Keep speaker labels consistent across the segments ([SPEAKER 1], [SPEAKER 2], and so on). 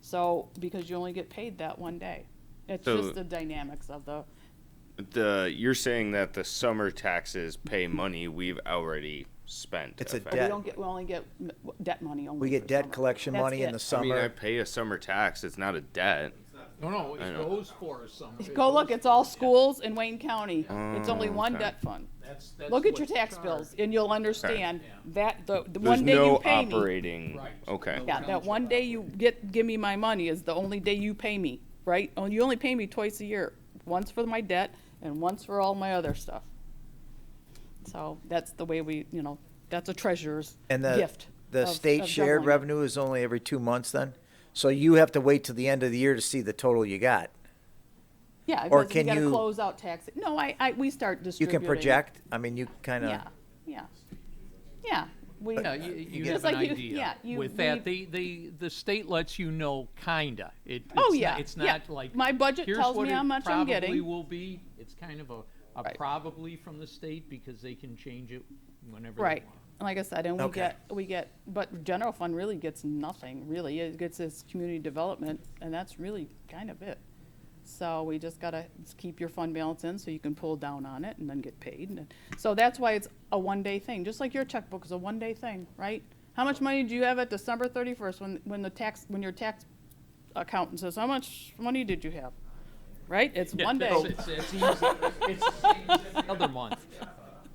[SPEAKER 1] So, because you only get paid that one day. It's
[SPEAKER 2] So-
[SPEAKER 1] just the dynamics of the,
[SPEAKER 2] The you're saying that the summer taxes pay money we've already spent.
[SPEAKER 3] It's a
[SPEAKER 1] we
[SPEAKER 2] effectively.
[SPEAKER 3] Debt.
[SPEAKER 1] don't get, we only get m- debt money only.
[SPEAKER 3] We
[SPEAKER 1] for
[SPEAKER 3] get debt
[SPEAKER 1] summer.
[SPEAKER 3] collection
[SPEAKER 1] That's
[SPEAKER 3] money in
[SPEAKER 1] it.
[SPEAKER 3] the
[SPEAKER 2] I mean, I
[SPEAKER 3] summer.
[SPEAKER 2] pay a summer tax. It's not a debt.
[SPEAKER 4] No, no, it
[SPEAKER 2] know.
[SPEAKER 4] goes for something.
[SPEAKER 1] Go look, it's all schools in Wayne County. It's only one
[SPEAKER 2] Oh, okay.
[SPEAKER 1] debt fund.
[SPEAKER 4] That's, that's.
[SPEAKER 1] Look at your
[SPEAKER 4] what's
[SPEAKER 1] tax
[SPEAKER 4] charged.
[SPEAKER 1] bills and you'll understand
[SPEAKER 4] Yeah.
[SPEAKER 1] that the, the
[SPEAKER 2] There's
[SPEAKER 1] one day
[SPEAKER 2] no
[SPEAKER 1] you pay me.
[SPEAKER 2] operating.
[SPEAKER 4] Right.
[SPEAKER 2] Okay.
[SPEAKER 1] Yeah, that one day you get, give me my money is the only day you pay me, right? Oh, you only pay me twice a year, once for my debt and once for all my other stuff. So that's the way we, you know, that's a treasurer's
[SPEAKER 3] And the,
[SPEAKER 1] gift.
[SPEAKER 3] the
[SPEAKER 1] of-
[SPEAKER 3] state
[SPEAKER 1] of
[SPEAKER 3] shared
[SPEAKER 1] juggling.
[SPEAKER 3] revenue is only every two months then? So you have to wait till the end of the year to see the total you got.
[SPEAKER 1] Yeah,
[SPEAKER 3] or
[SPEAKER 1] because you
[SPEAKER 3] can
[SPEAKER 1] gotta
[SPEAKER 3] you-
[SPEAKER 1] close out tax. No, I, I, we start
[SPEAKER 3] You
[SPEAKER 1] distributing.
[SPEAKER 3] can project, uh, I mean, you kind of,
[SPEAKER 1] Yeah, yeah, yeah. We,
[SPEAKER 4] Yeah, you, you
[SPEAKER 1] Just
[SPEAKER 4] have
[SPEAKER 1] like
[SPEAKER 4] an
[SPEAKER 1] you- yeah,
[SPEAKER 4] idea.
[SPEAKER 1] you-
[SPEAKER 4] With that,
[SPEAKER 1] we-
[SPEAKER 4] the, the, the state lets you know kinda. It,
[SPEAKER 1] Oh,
[SPEAKER 4] it's
[SPEAKER 1] yeah,
[SPEAKER 4] not- It's
[SPEAKER 1] yeah.
[SPEAKER 4] not like.
[SPEAKER 1] My budget
[SPEAKER 4] here's
[SPEAKER 1] tells
[SPEAKER 4] what
[SPEAKER 1] me
[SPEAKER 4] it
[SPEAKER 1] how much I'm
[SPEAKER 4] Probably
[SPEAKER 1] getting.
[SPEAKER 4] will be, it's kind of a, a
[SPEAKER 1] Right.
[SPEAKER 4] probably from the state because they can change it whenever they want.
[SPEAKER 1] right. Like I said, and we
[SPEAKER 3] Okay.
[SPEAKER 1] get, we get, but general fund really gets nothing, really. It gets this community development, and that's really kind of it. So we just gotta s- keep your fund balance in so you can pull down on it and then get paid. And So that's why it's a one-day thing, just like your checkbook is a one-day thing, right? How much money do you have at December thirty-first when, when the tax, when your tax accountant says, how much money did you have? Right? It's
[SPEAKER 4] Yeah,
[SPEAKER 1] one day.
[SPEAKER 4] that's- It's, it's easy. It's another month.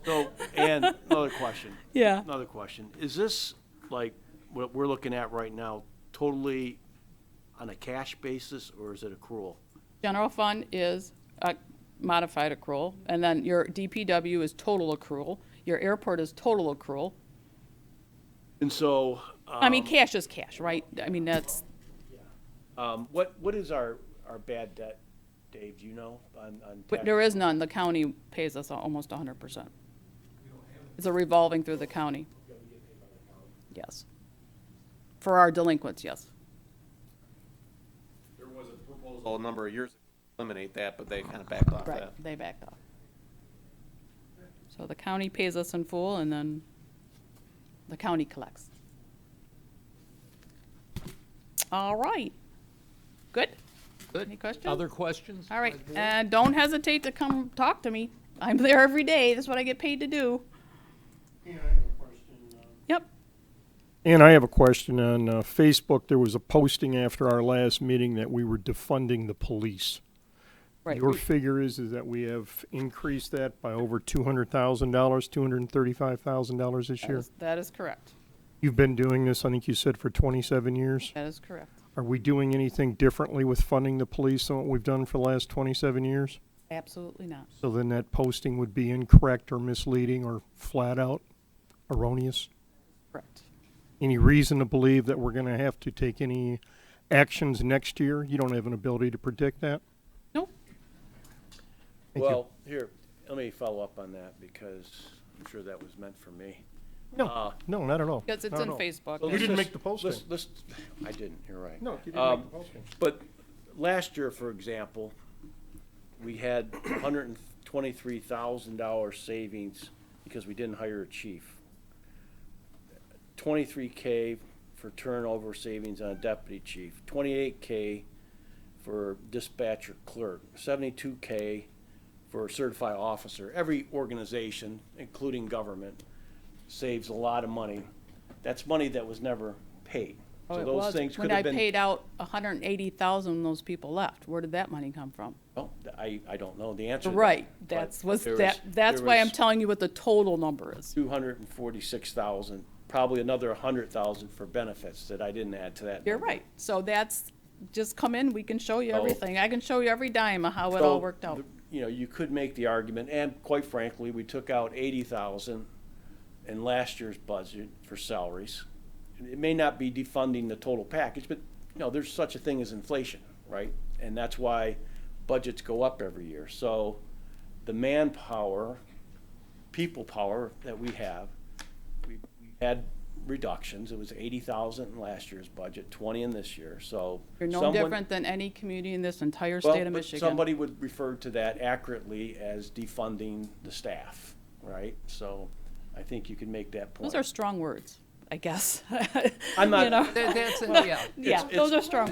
[SPEAKER 5] So, and another question,
[SPEAKER 1] Yeah.
[SPEAKER 5] another question. Is this, like, what we're looking at right now, totally on a cash basis, or is it accrual?
[SPEAKER 1] General fund is a modified accrual, and then your DPW is total accrual, your airport is total accrual.
[SPEAKER 5] And so,
[SPEAKER 1] I mean,
[SPEAKER 5] um,
[SPEAKER 1] cash is cash, right? I mean, that's,
[SPEAKER 5] um, what, what is our, our bad debt, Dave, do you know, on, on
[SPEAKER 1] but
[SPEAKER 5] tax?
[SPEAKER 1] there is none, the county pays us al- almost hundred percent. It's a revolving through the county. Yes. For our delinquents, yes.
[SPEAKER 6] There was a proposal a number of years ago to eliminate that, but they kind of backed off
[SPEAKER 1] Right,
[SPEAKER 6] that.
[SPEAKER 1] they backed off. So the county pays us in full, and then the county collects. All right. Good?
[SPEAKER 4] Good.
[SPEAKER 1] Any questions?
[SPEAKER 4] Other questions?
[SPEAKER 1] All right,
[SPEAKER 4] by the board?
[SPEAKER 1] and don't hesitate to come talk to me. I'm there every day, that's what I get paid to do. Yep,
[SPEAKER 7] And I have a question on uh, Facebook. There was a posting after our last meeting that we were defunding the police.
[SPEAKER 1] right.
[SPEAKER 7] Your
[SPEAKER 1] we-
[SPEAKER 7] figure is is that we have increased that by over two hundred thousand dollars, two hundred and thirty-five thousand dollars this
[SPEAKER 1] that
[SPEAKER 7] year.
[SPEAKER 1] is- That is correct,
[SPEAKER 7] You've been doing this, I think you said, for twenty-seven years.
[SPEAKER 1] that is correct.
[SPEAKER 7] Are we doing anything differently with funding the police than what we've done for the last twenty-seven years?
[SPEAKER 1] Absolutely not.
[SPEAKER 7] So then that posting would be incorrect or misleading or flat out erroneous?
[SPEAKER 1] Correct.
[SPEAKER 7] any reason to believe that we're going to have to take any actions next year? You don't have an ability to predict that?
[SPEAKER 1] Nope,
[SPEAKER 7] Thank you.
[SPEAKER 5] Well, here, let me follow up on that, because I'm sure that was meant for me.
[SPEAKER 7] No, no, not at all.
[SPEAKER 1] because it's
[SPEAKER 7] Not at
[SPEAKER 1] on
[SPEAKER 7] all.
[SPEAKER 1] Facebook.
[SPEAKER 5] So
[SPEAKER 7] You
[SPEAKER 5] let's
[SPEAKER 7] didn't
[SPEAKER 5] just-
[SPEAKER 7] make the posting.
[SPEAKER 5] let's- Let's, I didn't, you're right.
[SPEAKER 7] No, you didn't
[SPEAKER 5] Um,
[SPEAKER 7] make the posting.
[SPEAKER 5] But last year, for example, we had hundred and twenty-three thousand dollar savings because we didn't hire a chief. Twenty-three K for turnover savings on a deputy chief, twenty-eight K for dispatcher clerk, seventy-two K for certified officer. Every organization, including government, saves a lot of money. That's money that was never paid.
[SPEAKER 1] Oh,
[SPEAKER 5] So
[SPEAKER 1] it
[SPEAKER 5] those
[SPEAKER 1] was.
[SPEAKER 5] things could
[SPEAKER 1] When I
[SPEAKER 5] have been.
[SPEAKER 1] paid out a hundred and eighty thousand, those people left. Where did that money come from?
[SPEAKER 5] Oh, I, I don't know the answer. to that,
[SPEAKER 1] Right,
[SPEAKER 5] but
[SPEAKER 1] that's, was,
[SPEAKER 5] there
[SPEAKER 1] that,
[SPEAKER 5] was-
[SPEAKER 1] that's
[SPEAKER 5] there
[SPEAKER 1] why I'm
[SPEAKER 5] was
[SPEAKER 1] telling you what the total number is.
[SPEAKER 5] 246,000, probably another 100,000 for benefits that I didn't add to that.
[SPEAKER 1] You're
[SPEAKER 5] number.
[SPEAKER 1] right. So that's, just come in, we can show you
[SPEAKER 5] So-
[SPEAKER 1] everything. I can show you every dime of how it
[SPEAKER 5] Oh. So,
[SPEAKER 1] all worked out.
[SPEAKER 5] the- You know, you could make the argument, and quite frankly, we took out 80,000 in last year's budget for salaries. And It may not be defunding the total package, but, you know, there's such a thing as inflation, right? And that's why budgets go up every year. So the manpower, people power that we have, we we had reductions. It was 80,000 in last year's budget, 20 in this year, so.
[SPEAKER 1] You're no
[SPEAKER 5] someone-
[SPEAKER 1] different than any community in this entire
[SPEAKER 5] well,
[SPEAKER 1] state of
[SPEAKER 5] but
[SPEAKER 1] Michigan.
[SPEAKER 5] Somebody would refer to that accurately as defunding the staff, right? So I think you can make that point.
[SPEAKER 1] Those are strong words, I guess.
[SPEAKER 5] I'm
[SPEAKER 1] You
[SPEAKER 5] not-
[SPEAKER 1] know?
[SPEAKER 4] That- that's, yeah.
[SPEAKER 1] Yeah,
[SPEAKER 5] it's-
[SPEAKER 1] those are strong